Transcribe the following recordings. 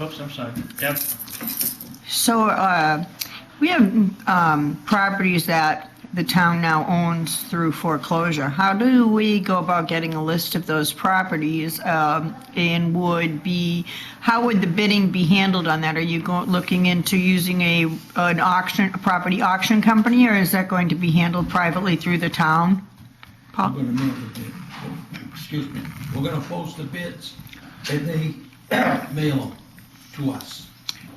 Oops, I'm sorry. Deb? So uh, we have um, properties that the town now owns through foreclosure. How do we go about getting a list of those properties? um, And would be, how would the bidding be handled on that? Are you go- looking into using a, an auction, a property auction company? Or is that going to be handled privately through the town? I'm Paul? gonna make the bid, excuse me, we're gonna post the bids, and they mail them to us.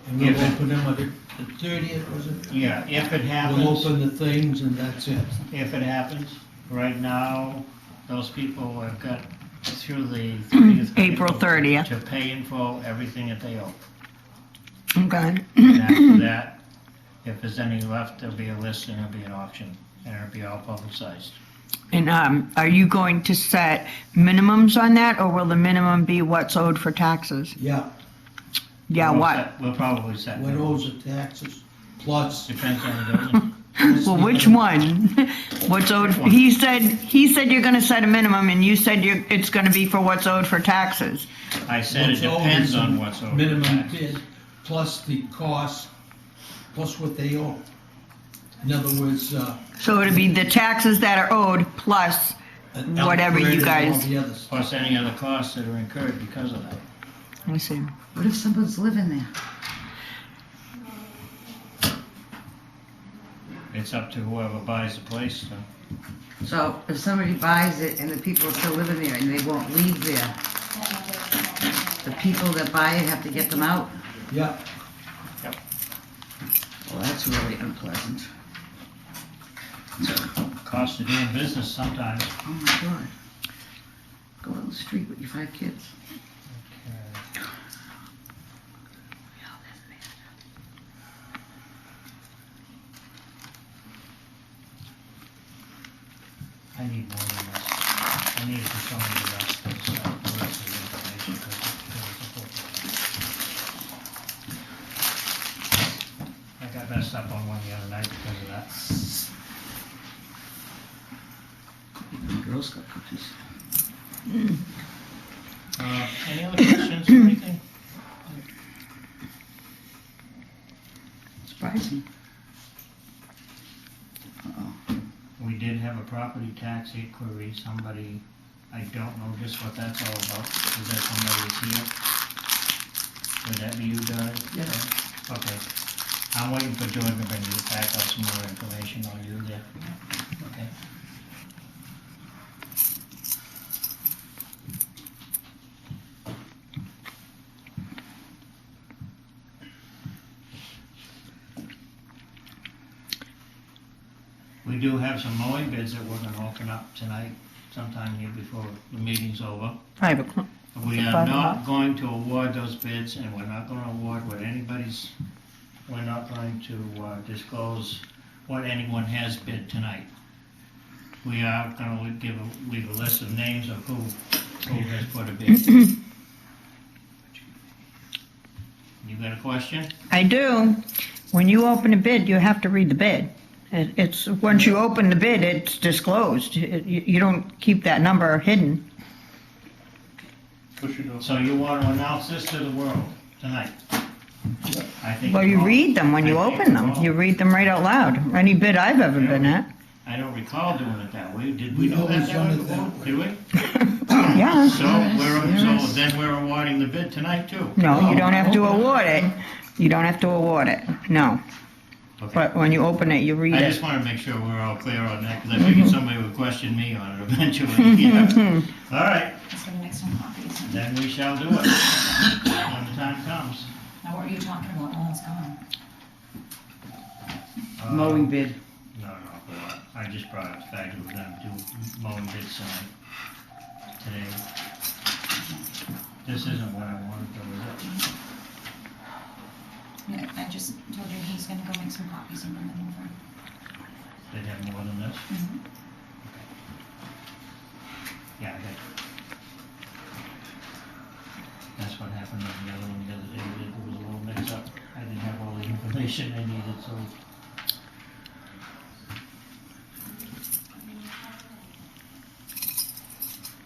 And we'll Yeah. open them, I think, the thirtieth, was it? Yeah, if it We'll happens, open the things and that's it. if it happens, right now, those people have got through the 30th. of April 30th. To pay in full everything that they owe. Okay. And after that, if there's any left, there'll be a list and there'll be an auction, and it'll be all publicized. And um, are you going to set minimums on that? Or will the minimum be what's owed for taxes? Yeah, Yeah, We'll what? set- We'll probably set. what owes the taxes, plus. Depends on the building. Well, which one? What's owed, Which one? he said, he said you're gonna set a minimum, and you said you're, it's gonna be for what's owed for taxes. I said it What's owed depends is on what's owed. Minimum bid, plus the cost, plus what they owe. In other words, uh. So it'd be the taxes that are owed plus, Whatever you upgrade and all guys- the other stuff. Plus any other costs that are incurred because of that. let me see. What if someone's living there? It's up to whoever buys the place, so. So if somebody buys it and the people are still living there and they won't leave there, the people that buy it have to get them out? Yeah, Well, that's really unpleasant. cost of doing business sometimes. Oh my God. Go out on the street with your five kids. I need more than this. I need to show you about this, uh, the rest of the information, 'cause it's really important. I got messed up on one the other night because of that. Girl Scout cookies. Uh, any other questions or anything? Surprising. Uh-oh. We did have a property tax inquiry, somebody, I don't know just what that's all about, is that somebody that's here? Would that be you, Doug? Yeah. Okay, I'm waiting for Jordan to bring you back up some more information on you there, okay? We do have some mowing bids that we're gonna open up tonight, sometime here before the meeting's over. I have a cl- We are not going to award those bids, and we're not gonna award what anybody's, we're not going to uh, disclose what anyone has bid tonight. We are gonna give, a- leave a list of names of who, who has put a bid. You got a question? I do, when you open a bid, you have to read the bid. It, it's, once you open the bid, it's disclosed, It- you, you don't keep that number hidden. So you wanna announce this to the world tonight? I think. Well, you all- read them when you I think open them, all- you read them right out loud, any bid I've ever been at, I don't recall doing it that way, did we We do that always that done way it that before? way. Did we? yeah. So we're, so then we're awarding the bid tonight too? No, you don't have to Oh. award it, you don't have to award it, no, Okay. but when you open it, you read I it. just wanna make sure we're all clear on that, cause I figured somebody would question me on it eventually, yeah. All right, Let's go to make some copies. then we shall do it, when the time comes. Now, what are you talking about? No one's gone. Uh, Mowing bid. No, no, but I just brought up the fact that we're gonna do mowing bid sign today. This isn't what I wanted, though, is it? Yeah, I just told you he's gonna go make some copies and bring them over. They have more than this? Mhm. Yeah, I got it. That's what happened on the other one the other day, it was a little mixed up. I didn't have all the information I needed, so